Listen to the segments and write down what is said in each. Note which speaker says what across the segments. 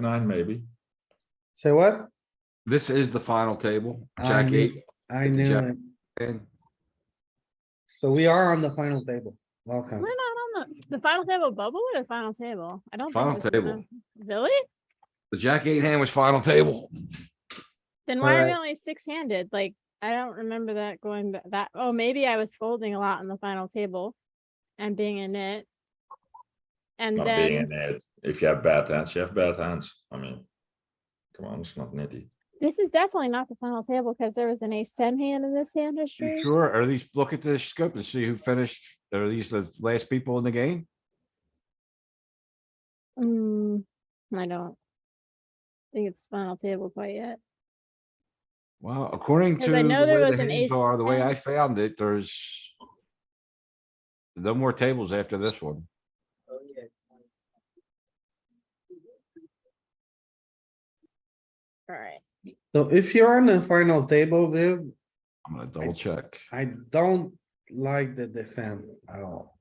Speaker 1: nine maybe.
Speaker 2: Say what?
Speaker 3: This is the final table.
Speaker 2: I
Speaker 3: Jack
Speaker 2: knew-
Speaker 3: eight
Speaker 2: I
Speaker 3: Hit the
Speaker 2: knew
Speaker 3: jack.
Speaker 2: it.
Speaker 3: and
Speaker 2: So we are on the final table. Welcome.
Speaker 4: We're not on the, the final table bubble or the final table? I don't. think
Speaker 3: Final
Speaker 4: this is
Speaker 3: table.
Speaker 4: the- Really?
Speaker 3: the jack eight hand was final table.
Speaker 4: Then why are we
Speaker 2: Alright.
Speaker 4: only six handed? Like, I don't remember that going ba- that, oh, maybe I was folding a lot on the final table and being in it. And
Speaker 1: Not being
Speaker 4: then
Speaker 1: in it. If you have bad hands, you have bad hands. I mean, come on, it's not nitty.
Speaker 4: this is definitely not the final table because there was an ace ten hand in this hand
Speaker 3: You
Speaker 4: history.
Speaker 3: Sure, or at least look at the scope and see who finished, or are these the last people in the game?
Speaker 4: Mm, I don't think it's final table quite yet.
Speaker 3: Well, according to
Speaker 4: 'Cause
Speaker 3: the way
Speaker 4: I know there
Speaker 3: the
Speaker 4: was an
Speaker 3: hands
Speaker 4: ace
Speaker 3: are, the way
Speaker 4: ten.
Speaker 3: I found it, there's no more tables after this one.
Speaker 4: Alright,
Speaker 2: So if you're on the final table, Viv,
Speaker 3: I'm gonna double check.
Speaker 2: I don't like the defend at all.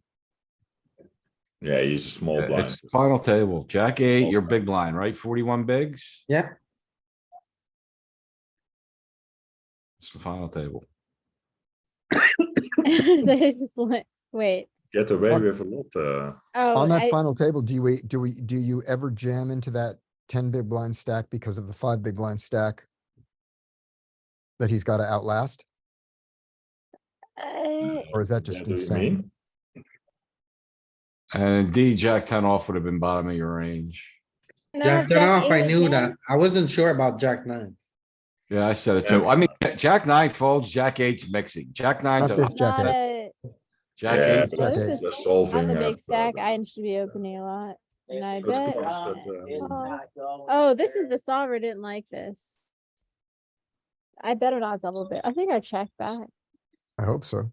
Speaker 1: Yeah, he's a small
Speaker 3: Yeah,
Speaker 1: blind.
Speaker 3: It's final table, jack eight,
Speaker 1: Small
Speaker 3: your
Speaker 1: blind.
Speaker 3: big blind, right? Forty-one bigs?
Speaker 2: Yeah.
Speaker 3: It's the final table.
Speaker 4: They just like- wait,
Speaker 1: Get away
Speaker 5: On-
Speaker 1: with a lot, uh,
Speaker 4: oh,
Speaker 5: On that
Speaker 4: I,
Speaker 5: final table, do you, do we, do you ever jam into that ten big blind stack because of the five big blind stack? That he's gotta outlast,
Speaker 4: I-
Speaker 5: or is that just
Speaker 1: yeah, do you
Speaker 5: insane?
Speaker 1: mean?
Speaker 3: And indeed, jack ten off would have been bottom of your range.
Speaker 4: no,
Speaker 2: Jack turn off, I
Speaker 4: eight
Speaker 2: knew
Speaker 4: again.
Speaker 2: that. I wasn't sure about jack nine.
Speaker 3: Yeah, I said it
Speaker 1: Yeah.
Speaker 3: too. I mean, jack nine folds, jack eight's mixing, jack nine's,
Speaker 5: Not
Speaker 3: a-
Speaker 5: this jack
Speaker 4: Not
Speaker 5: eight.
Speaker 4: a-
Speaker 3: jack
Speaker 1: Yeah,
Speaker 3: eight's,
Speaker 1: but
Speaker 4: Well,
Speaker 5: Jack
Speaker 4: this
Speaker 5: eight.
Speaker 4: is-
Speaker 1: Just solving.
Speaker 4: I'm a
Speaker 1: uh,
Speaker 4: big stack.
Speaker 1: the-
Speaker 4: I should be opening a lot. And I
Speaker 1: Let's
Speaker 4: bet.
Speaker 1: go
Speaker 4: on
Speaker 1: first,
Speaker 4: it.
Speaker 1: but, uh,
Speaker 4: Oh, Oh, this is the solver didn't like this. I bet it odds double bit. I think I checked back.
Speaker 5: I hope so.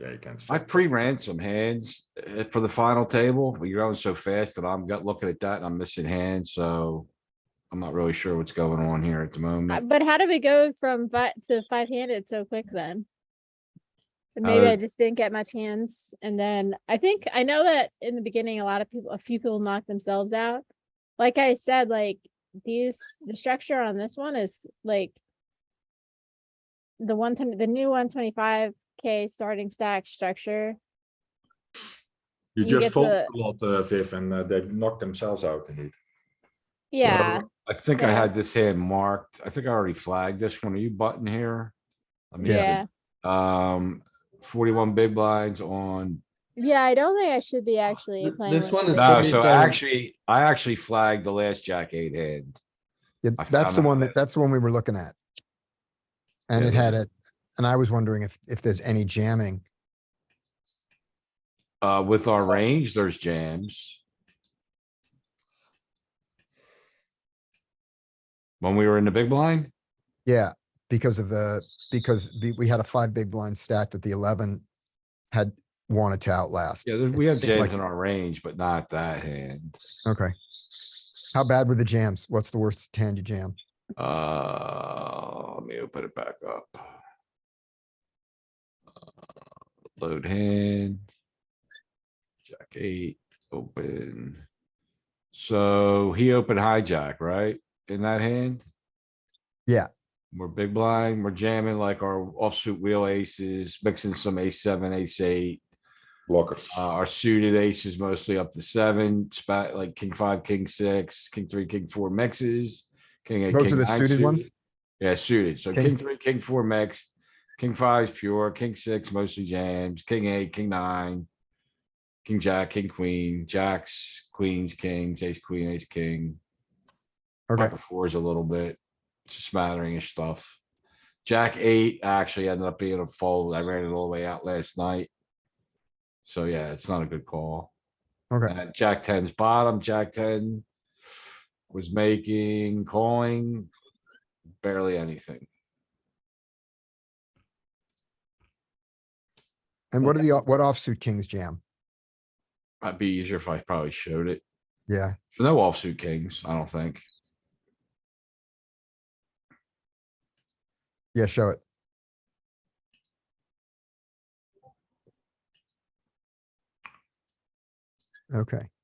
Speaker 1: Yeah, you can.
Speaker 3: I pre-ran some hands uh, for the final table, but you're going so fast that I'm got looking at that and I'm missing hands, so. I'm not really sure what's going on here at the
Speaker 4: Uh,
Speaker 3: moment.
Speaker 4: But how did we go from five to five handed so quick then? So Maybe
Speaker 3: Uh,
Speaker 4: I just didn't get much hands. And then I think, I know that in the beginning, a lot of people, a few people knocked themselves out. Like I said, like these, the structure on this one is like the one, the new one twenty-five K starting stack structure.
Speaker 1: You
Speaker 4: you
Speaker 1: just
Speaker 4: get
Speaker 1: fold a
Speaker 4: the-
Speaker 1: lot, uh, Viv, and uh, they knock themselves out indeed.
Speaker 4: Yeah,
Speaker 3: I think I
Speaker 4: yeah.
Speaker 3: had this hand marked. I think I already flagged this one. Are you button here? Let me see.
Speaker 4: yeah.
Speaker 3: Um, forty-one big blinds on,
Speaker 4: Yeah, I don't think I should be actually
Speaker 2: Uh, th-
Speaker 4: playing.
Speaker 2: this
Speaker 4: with
Speaker 2: one is
Speaker 4: the-
Speaker 3: no,
Speaker 2: be
Speaker 3: so
Speaker 2: fair.
Speaker 3: actually, I actually flagged the last jack eight hand.
Speaker 5: Yeah,
Speaker 3: I
Speaker 5: that's
Speaker 3: found
Speaker 5: the
Speaker 3: that
Speaker 5: one
Speaker 3: it-
Speaker 5: that, that's the one we were looking at. And
Speaker 3: Yeah,
Speaker 5: it
Speaker 3: this
Speaker 5: had it, and I was wondering if, if there's any jamming.
Speaker 3: Uh, with our range, there's jams. When we were in the big blind,
Speaker 5: Yeah, because of the, because we, we had a five big blind stack that the eleven had wanted to outlast.
Speaker 3: yeah, there-
Speaker 5: It
Speaker 3: we have
Speaker 5: seemed
Speaker 3: jams
Speaker 5: like-
Speaker 3: in our range, but not that hand.
Speaker 5: Okay. How bad were the jams? What's the worst hand you jam?
Speaker 3: Uh, let me open it back up. Uh, Load hand. Jack eight, open. So he opened hijack, right? In that hand?
Speaker 5: Yeah.
Speaker 3: We're big blind, we're jamming like our offsuit wheel aces, mixing some ace seven, ace eight.
Speaker 1: Blockers.
Speaker 3: Uh, our suited aces mostly up to seven, spot like king five, king six, king three, king four mixes. King eight,
Speaker 5: Those
Speaker 3: king
Speaker 5: are the
Speaker 3: nine
Speaker 5: suited ones?
Speaker 3: Yeah, suited. So king
Speaker 5: Kings-
Speaker 3: three, king four mix, king five is pure, king six mostly jams, king eight, king nine. King jack, king queen, jacks, queens, kings, ace queen, ace king.
Speaker 5: Okay,
Speaker 3: pocket Fours a little bit, smattering of stuff. Jack eight actually ended up being a fold. I ran it all the way out last night. So yeah, it's not a good call.
Speaker 5: okay.
Speaker 3: And at Jack ten's bottom, Jack ten was making, calling barely anything.
Speaker 5: And what are the, o- what offsuit kings jam?
Speaker 3: I'd be easier if I probably showed it.
Speaker 5: Yeah,
Speaker 3: No offsuit kings, I don't think.
Speaker 5: yeah, show it. Okay,